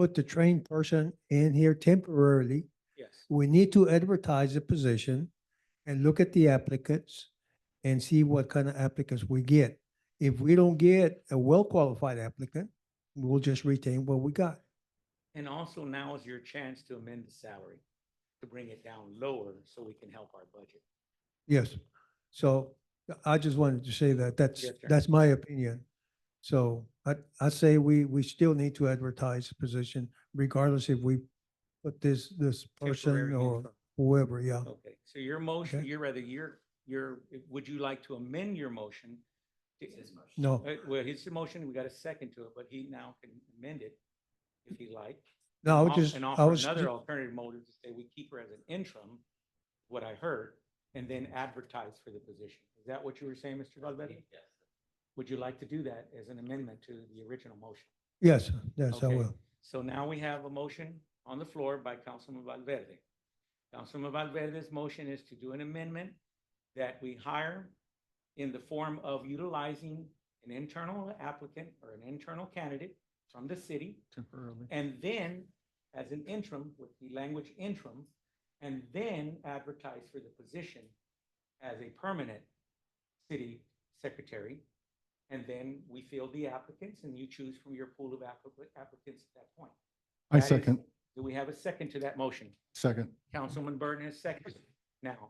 put the trained person in here temporarily. Yes. We need to advertise the position and look at the applicants and see what kind of applicants we get. If we don't get a well-qualified applicant, we'll just retain what we got. And also now is your chance to amend the salary, to bring it down lower so we can help our budget. Yes. So I just wanted to say that. That's, Yes, sir. that's my opinion. So I, I say we, we still need to advertise the position regardless if we put this, this person Temporary or interim. whoever, yeah. Okay, so your motion, Okay. your rather, your, your, would you like to amend your motion? to- No, Uh, Well, his motion, we got a second to it, but he now can amend it if he like. no, I and was off- just, And I offer was, another alternative motive to say we keep her as an interim, what I heard, and then advertise for the position. Is that what you were saying, Mr. Valverde? Yes. Would you like to do that as an amendment to the original motion? yes, yes, I Okay. will. So now we have a motion on the floor by Councilman Valverde. Councilman Valverde's motion is to do an amendment that we hire in the form of utilizing an internal applicant or an internal candidate from the city. Temporarily. And then, as an interim, with the language interim, and then advertise for the position as a permanent city secretary. And then we field the applicants and you choose from your pool of applica- applicants at that point. I That is- second, Do we have a second to that motion? second. Councilman Burton has seconded. Now,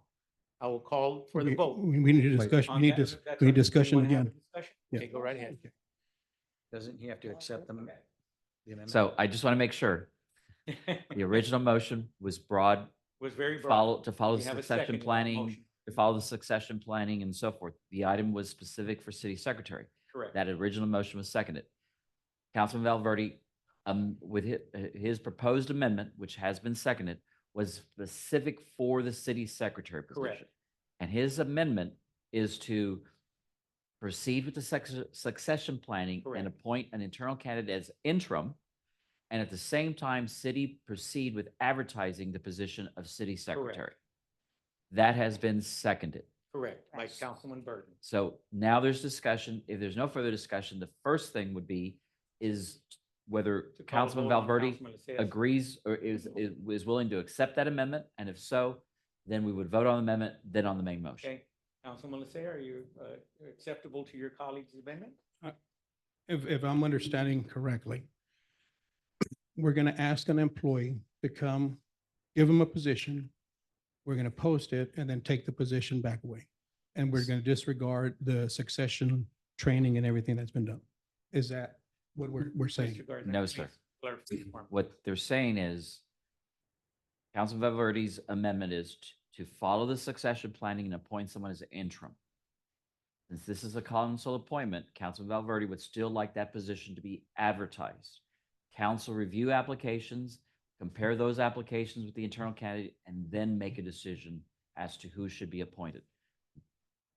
I will call for the Okay, vote. We we need a Wait. discussion, we on need that. this, That's we need up to you. discussion Wanna have again. a discussion? Yeah. Okay, go right ahead. Doesn't he have to accept them? the amendment? So I just want to make sure Okay. the original motion was broad, Was very broad. follow, to follow We have a second succession to that planning, motion. to follow the succession planning and so forth. The item was specific for city secretary. Correct. That original motion was seconded. Councilman Valverde, um, with his, his proposed amendment, which has been seconded, was specific for the city secretary Correct. position. And his amendment is to proceed with the sex- succession planning Correct. and appoint an internal candidate as interim. And at the same time, city proceed with advertising the position of city secretary. That has been seconded. Correct, by Councilman Burton. So now there's discussion. If there's no further discussion, the first thing would be is whether To call a Councilman vote on Valverde Councilman Lysias. agrees or is, is is willing to accept that amendment. And if so, then we would vote on the amendment, then on the main motion. Okay, Councilman Lysias, are you uh, acceptable to your colleague's amendment? If, if I'm understanding correctly, we're going to ask an employee to come, give him a position. We're going to post it and then take the position back away. And we're going to disregard the succession training and everything that's been done. Is that what we're, we're saying? Mr. Gardner, No, please sir. clarify the form. What they're saying is Councilman Valverde's amendment is t- to follow the succession planning and appoint someone as interim. Since this is a council appointment, Councilman Valverde would still like that position to be advertised. Council review applications, compare those applications with the internal candidate, and then make a decision as to who should be appointed.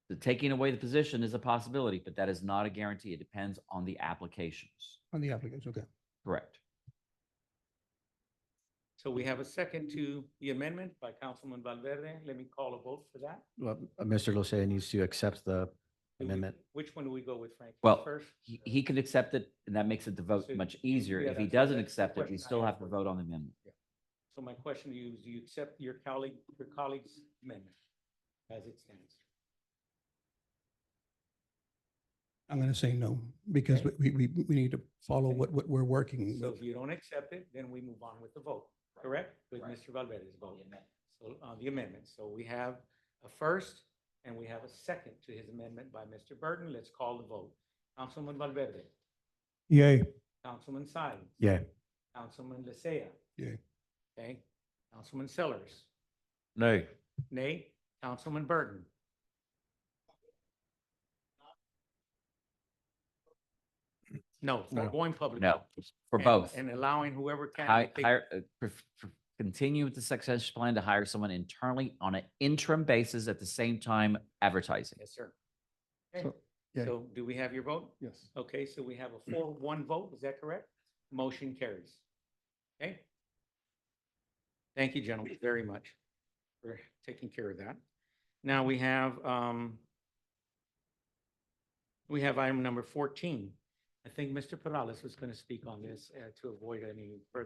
The taking away the position is a possibility, but that is not a guarantee. It depends on the applications. On the applicants, okay. Correct. So we have a second to the amendment by Councilman Valverde. Let me call a vote for that. Well, Mr. Lucea needs to accept the Do we- amendment. Which one do we go with, Frank? Well, First? He, he can accept it, and that makes it the vote So- much easier. yeah, If he that's what- doesn't that's the accept it, we question I still had have to for you. vote on the amendment. So my question to you is, do you accept your colleague, your colleague's amendment as it stands? I'm going to say no, because Okay. we, we, we need to follow what, what we're working So with. if you don't accept it, then we move on with the vote, correct? With Mr. Valverde's vote. So, uh, the amendment. So we have a first and we have a second to his amendment by Mr. Burton. Let's call the vote. Councilman Valverde, Yay. Councilman Sines. Yeah. Councilman Lysia. Yeah. Okay, Councilman Sellers, No. nay, Councilman Burton. No, we're No. going public. No, for And- both. And allowing whoever can. Hi- Hire, uh, pref- pref- continue with the succession plan to hire someone internally on an interim basis at the same time advertising. Yes, sir. So- Okay, yeah. Mm-hmm. So do we have your vote? Yes. Okay, so we have a four, one vote, is that correct? Motion carries. Okay? Thank you, gentlemen, very much for taking care of that. Now we have, um, we have item number fourteen. I think Mr. Perales was going to speak on this uh, to avoid any further